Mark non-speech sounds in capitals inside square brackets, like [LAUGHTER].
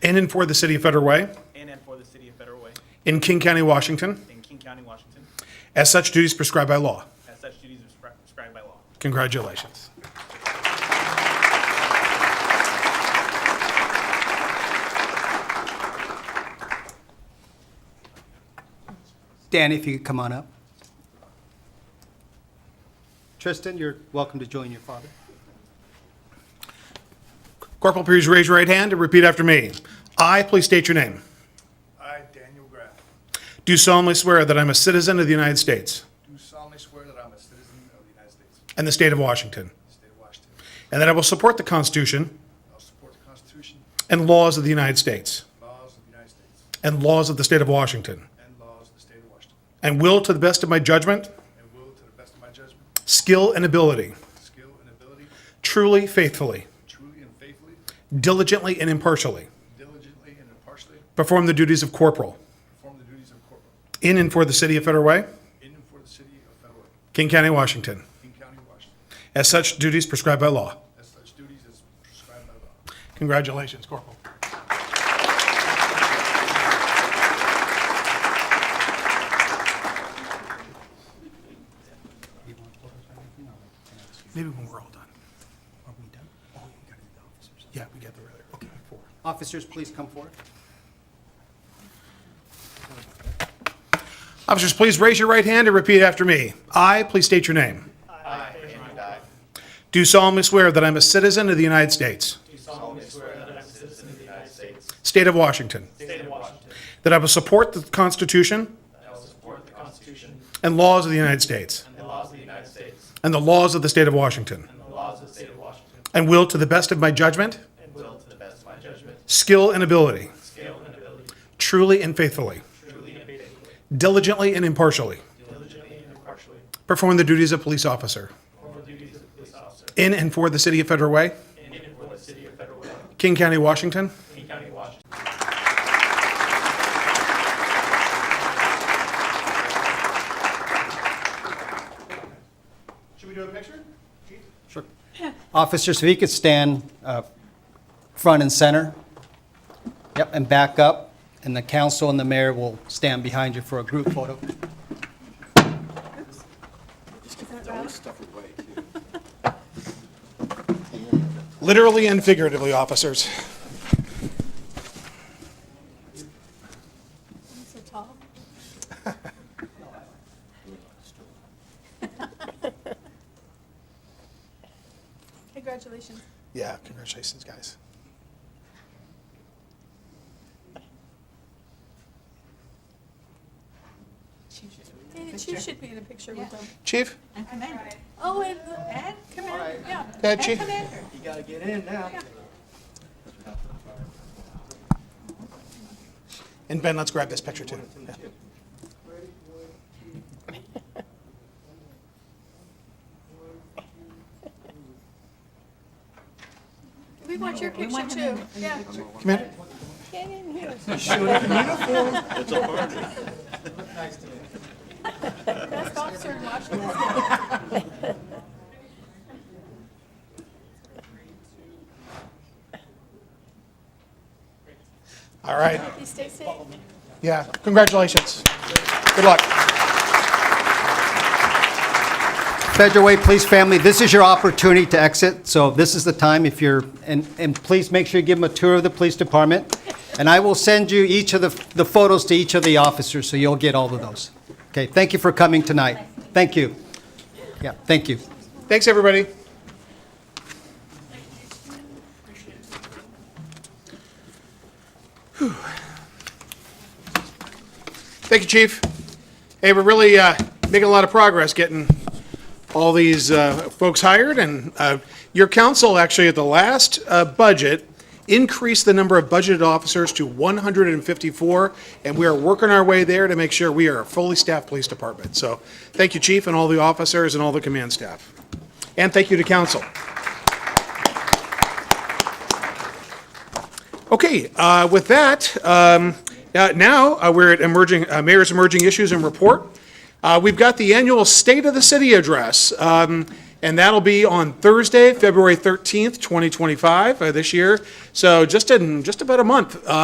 in and for the City of Federal Way and and for the City of Federal Way in King County, Washington, in King County, Washington, as such duties prescribed by law. as such duties are prescri- prescribed by law. Congratulations. Dan, if you could come on up. Tristan, you're welcome to join your father. Corporal, please raise your right hand and repeat after me. I, please state your name. I, Daniel Graff, Do solemnly swear that I'm a citizen of the United States do solemnly swear that I'm a citizen of the United States, and the state of Washington, the state of Washington. and that I will support the Constitution I'll support the Constitution, and laws of the United States laws of the United States, and laws of the state of Washington, and laws of the state of Washington, and will, to the best of my judgment, and will, to the best of my judgment, skill, and ability, skill, and ability, truly, faithfully, truly and faithfully, diligently, and impartially, diligently, and impartially perform the duties of corporal perform the duties of corporal in and for the City of Federal Way, in and for the city of Federal, Way, King County, Washington, King County, Washington, as such duties prescribed by law. as such duties as prescribed by law. Congratulations, Corporal. Maybe when we're all done. Are we done? Oh, we gotta do the officers. Yeah, we get the other. Okay. four. Officers, please come forward. Officers, please raise your right hand and repeat after me. I, please state your name. I, Do solemnly swear that I'm a citizen of the United States. Do solemnly swear that I'm a citizen of the United States. State of Washington. State of Washington. That I will support the Constitution. And laws of the United States. And the laws of the United States. And the laws of the state of Washington. And the laws of the state of Washington. And will, to the best of my judgment. And will, to the best of my judgment. Skill and ability. Skill and ability. Truly and faithfully. Diligently and impartially. Perform the duties of police officer. In and for the city of Federal Way. King County, Washington. Should we do a picture? Sure. Officers, if you could stand uh, front and center. Yep, and back up, and the council and the mayor will stand behind you for a group photo. Literally and figuratively, officers. So tall. Congratulations. Yeah, congratulations, guys. David, you should be in a picture with them. Chief? Oh, and Ed, come in, yeah. Yeah, Ed, Chief. Come in. And Ben, let's grab this picture too. Yeah. We want your picture too, yeah. Come here. Get in here. [LAUGHS] Best officer in Washington. All right. Please stay safe. Yeah, congratulations. Good luck. Federal Way Police family, this is your opportunity to exit, so this is the time if you're, and, and please make sure you give them a tour of the police department. And I will send you each of the, the photos to each of the officers, so you'll get all of those. Okay, thank you for coming tonight. Thank you. Yeah, thank you. Thanks, everybody. Whew. Thank you, Chief. Hey, we're really uh, making a lot of progress getting all these uh, folks hired, and uh, your council actually at the last uh, budget increased the number of budgeted officers to 154, and we are working our way there to make sure we are a fully staffed police department. So thank you, chief, and all the officers and all the command staff. And thank you to council. Okay, uh, with that, um, uh, now uh, we're at emerging, uh, Mayor's Emerging Issues and Report. Uh, We've got the annual State of the City Address. Um, And that'll be on Thursday, February 13th, 2025, uh, this year. So just in, just about a month, uh,